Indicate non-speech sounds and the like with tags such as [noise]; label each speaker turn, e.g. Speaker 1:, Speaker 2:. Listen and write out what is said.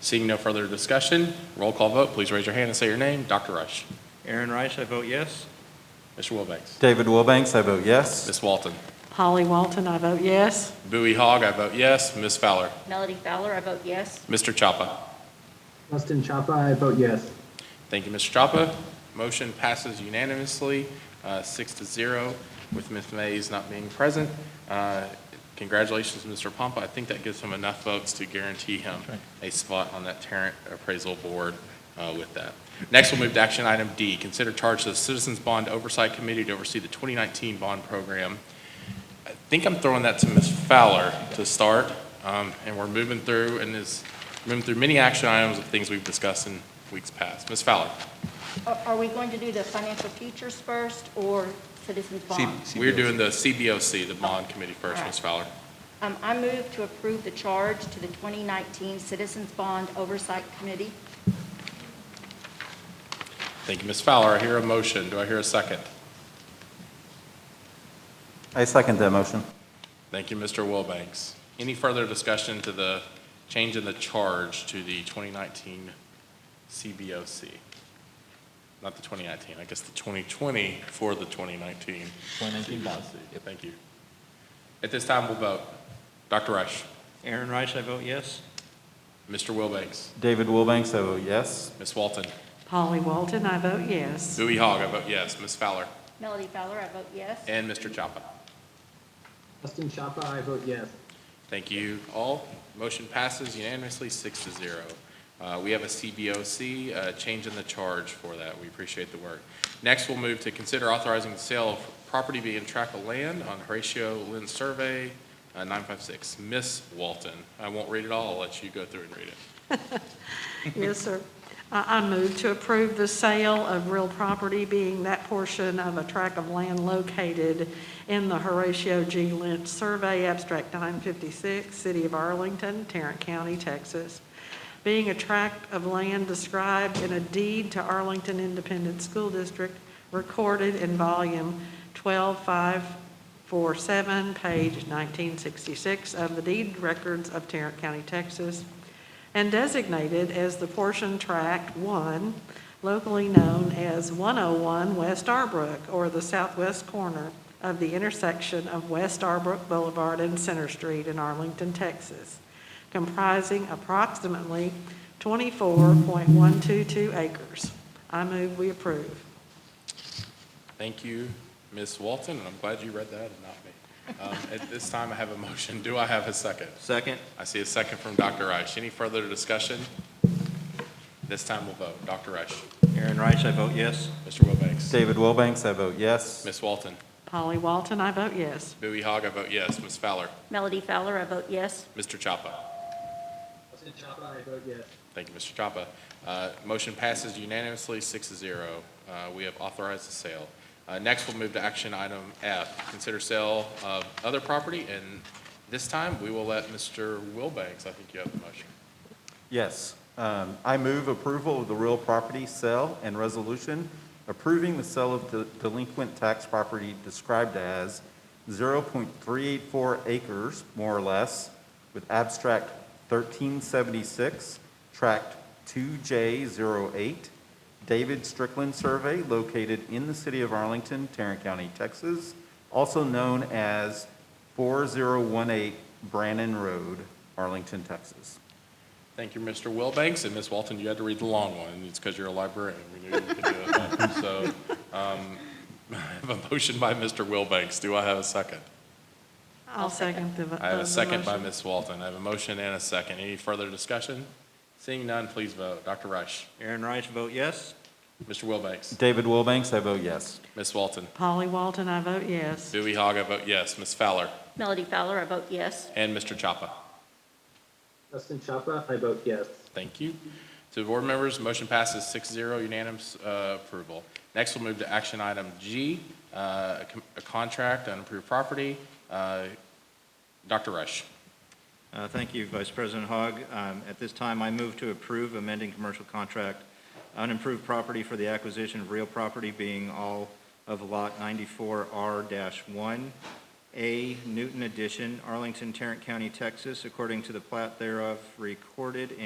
Speaker 1: Seeing no further discussion, roll call vote, please raise your hand and say your name. Dr. Rush.
Speaker 2: Aaron Reich, I vote yes.
Speaker 1: Mr. Wilbanks.
Speaker 3: David Wilbanks, I vote yes.
Speaker 1: Ms. Walton.
Speaker 4: Holly Walton, I vote yes.
Speaker 1: Bowie Hogg, I vote yes. Ms. Fowler.
Speaker 5: Melody Fowler, I vote yes.
Speaker 1: Mr. Chapa.
Speaker 6: Justin Chapa, I vote yes.
Speaker 1: Thank you, Mr. Chapa. Motion passes unanimously, uh, six to zero, with Ms. Mays not being present. Uh, Congratulations, Mr. Pompa. I think that gives him enough votes to guarantee him a spot on that Tarrant Appraisal Board uh, with that. Next, we'll move to action item D, consider charge to the Citizens Bond Oversight Committee to oversee the 2019 bond program. I think I'm throwing that to Ms. Fowler to start, um, and we're moving through, and is, moving through many action items of things we've discussed in weeks past. Ms. Fowler?
Speaker 5: Are are we going to do the financial futures first or citizens bonds?
Speaker 1: We're doing the CBOC, the bond committee first, Ms. Fowler.
Speaker 5: Um, I move to approve the charge to the 2019 Citizens Bond Oversight Committee.
Speaker 1: Thank you, Ms. Fowler. I hear a motion. Do I hear a second?
Speaker 3: I second that motion.
Speaker 1: Thank you, Mr. Wilbanks. Any further discussion to the change in the charge to the 2019 CBOC? Not the 2019, I guess the 2020 for the 2019. 2019 Thank you. At this time, we'll vote. Dr. Rush,
Speaker 2: Aaron Reich, I vote yes.
Speaker 1: Mr. Wilbanks,
Speaker 3: David Wilbanks, I vote yes.
Speaker 1: Ms. Walton,
Speaker 4: Holly Walton, I vote yes.
Speaker 1: Bowie Hogg, I vote yes, Ms. Fowler,
Speaker 5: Melody Fowler, I vote yes.
Speaker 1: and Mr. Chapa.
Speaker 6: Justin Chapa, I vote yes.
Speaker 1: Thank you all. Motion passes unanimously, six to zero. Uh, We have a CBOC, uh, change in the charge for that. We appreciate the work. Next, we'll move to consider authorizing the sale of property being tract of land on Horatio Lynn Survey uh, 956. Miss Walton, I won't read it all, I'll let you go through and read it.
Speaker 4: Yes, sir. I, I move to approve the sale of real property being that portion of a tract of land located in the Horatio G. Lynch Survey, Abstract 956, City of Arlington, Tarrant County, Texas, being a tract of land described in a deed to Arlington Independent School District, recorded in volume 12547, page 1966 of the deed records of Tarrant County, Texas, and designated as the portion tract one, locally known as 101 West Arbrook, or the southwest corner of the intersection of West Arbrook Boulevard and Center Street in Arlington, Texas, comprising approximately 24.122 acres. I move we approve.
Speaker 1: Thank you, Miss Walton, and I'm glad you read that and not me. Um, At this time, I have a motion. Do I have a second?
Speaker 2: Second,
Speaker 1: I see a second from Dr. Reich. Any further discussion? This time we'll vote. Dr. Reich,
Speaker 2: Aaron Reich, I vote yes.
Speaker 1: Mr. Wilbanks,
Speaker 3: David Wilbanks, I vote yes.
Speaker 1: Ms. Walton,
Speaker 4: Polly Walton, I vote yes.
Speaker 1: Bowie Hogg, I vote yes. Ms. Fowler,
Speaker 5: Melody Fowler, I vote yes.
Speaker 1: Mr. Chapa.
Speaker 6: Justin Chapa, I vote yes.
Speaker 1: Thank you, Mr. Chapa. Uh, Motion passes unanimously, six to zero. Uh, We have authorized the sale. Uh, Next, we'll move to action item F, consider sale of other property, and this time, we will let Mr. Wilbanks, I think you have the motion.
Speaker 3: Yes. Um, I move approval of the real property sale and resolution approving the sale of the delinquent tax property described as 0.384 acres, more or less, with abstract 1376, tract 2J08, David Strickland Survey located in the city of Arlington, Tarrant County, Texas, also known as 4018 Brannan Road, Arlington, Texas.
Speaker 1: Thank you, Mr. Wilbanks, and Ms. Walton, you had to read the long one, it's because you're a librarian, we knew you could do [laughs] it. So, um, [laughs] I have a motion by Mr. Wilbanks, do I have a second?
Speaker 4: I'll second the
Speaker 1: I have
Speaker 4: the
Speaker 1: a second by
Speaker 4: Oh, motion.
Speaker 1: Ms. Walton, I have a motion and a second, any further discussion? Seeing none, please vote, Dr. Rush,
Speaker 2: Aaron Reich, vote yes.
Speaker 1: Mr. Wilbanks,
Speaker 3: David Wilbanks, I vote yes.
Speaker 1: Ms. Walton,
Speaker 4: Polly Walton, I vote yes.
Speaker 1: Dewey Hogg, I vote yes, Ms. Fowler,
Speaker 5: Melody Fowler, I vote yes.
Speaker 1: and Mr. Chapa.
Speaker 6: Justin Chapa, I vote yes.
Speaker 1: Thank you. To the board members, motion passes 6-0, unanimous uh, approval. Next, we'll move to action item G, uh, a com- a contract on approved property. Uh, Dr. Rush,
Speaker 2: Uh, Thank you, Vice President Hogg. Um, At this time, I move to approve amending commercial contract unimproved property for the acquisition of real property being all of Lot 94R-1A Newton Addition, Arlington, Tarrant County, Texas, according to the plat thereof recorded